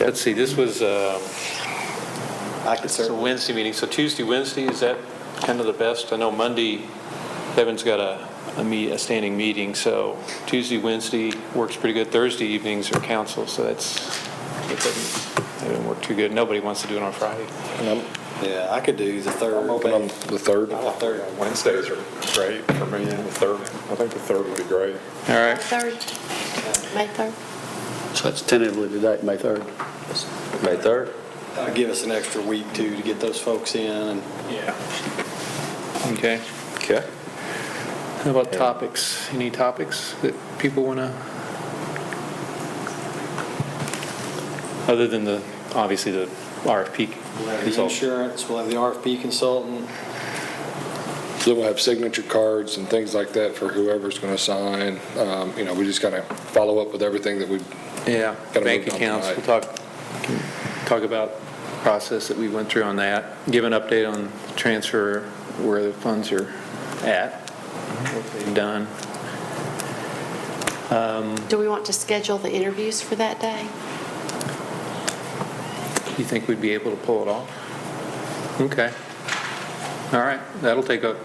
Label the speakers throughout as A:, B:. A: Let's see, this was, um,
B: I could
A: it's a
B: certainly,
A: Wednesday meeting, so Tuesday, Wednesday, is that kind of the best? I know Monday, Devin's got a, a meet, a standing meeting, so Tuesday, Wednesday works pretty good. Thursday evenings are council, so that's, it doesn't, it doesn't work too good. Nobody wants to do it on Friday.
C: And I'm
B: yeah, I could do the third.
C: I'm open on the third.
B: The third.
C: Wednesdays are great for me, the third, I think the third would be great.
A: All right.
D: Third, May 3rd.
E: So that's tentatively today, May 3rd. May 3rd?
B: Uh, Give us an extra week too to get those folks in and
A: Okay.
C: Okay.
A: How about topics? Any topics that people want to? Other than the, obviously, the RFP
B: we'll have the
A: results.
B: insurance, we'll have the RFP consultant.
C: So we'll have signature cards and things like that for whoever's going to sign. Um, You know, we just got to follow up with everything that we,
A: Yeah,
C: Gotta
A: bank
C: move on
A: accounts, we'll
C: tonight.
A: talk, talk about process that we went through on that, give an update on transfer, where the funds are at, what they've done.
D: Do we want to schedule the interviews for that day?
A: Do you think we'd be able to pull it off? Okay. All right, that'll take a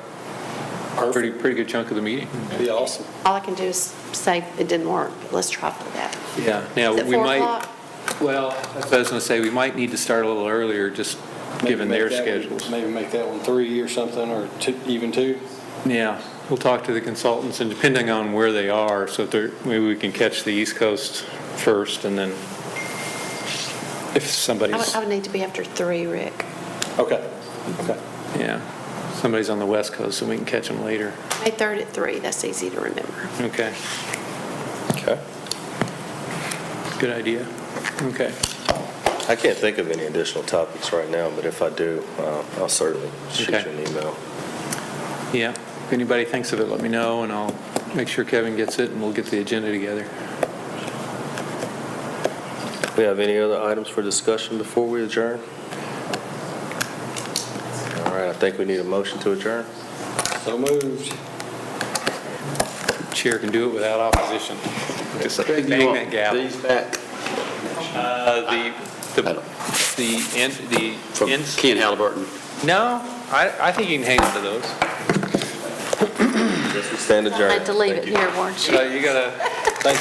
A: pretty, pretty good chunk of the meeting.
B: That'd Be awesome.
D: All I can do is say it didn't work, but let's try for that.
A: Yeah, now,
D: Is it
A: Uh, we
D: four
A: might,
D: o'clock?
A: well, that's what I was going to say, we might need to start a little earlier, just
B: Maybe
A: given their
B: make that one-
A: schedules.
B: Maybe make that one three or something, or two, even two.
A: Yeah, we'll talk to the consultants, and depending on where they are, so if they're, maybe we can catch the East Coast first, and then if
D: I would,
A: somebody's,
D: I would need to be after 3, Rick.
B: Okay, okay.
A: yeah, somebody's on the West Coast, so we can catch them later.
D: May 3rd at 3, that's easy to remember.
A: Okay,
E: Okay.
A: good idea. Okay,
F: I can't think of any additional topics right now, but if I do, uh, I'll certainly shoot you
A: Okay.
F: an email.
A: yeah, if anybody thinks of it, let me know, and I'll make sure Kevin gets it, and we'll get the agenda together.
F: We have any other items for discussion before we adjourn? All right, I think we need a motion to adjourn.
B: So moved.
A: Chair can do it without opposition. Just bang that gavel.
E: These back
A: Uh, The, the, the in- the
E: from
A: ins-
E: Ken Halliburton.
A: No, I, I think you can hang on to those.
F: Yes, we stand adjourned.
D: I had to leave
F: Thank
D: it
F: you.
D: here, weren't you?
A: Uh, You gotta,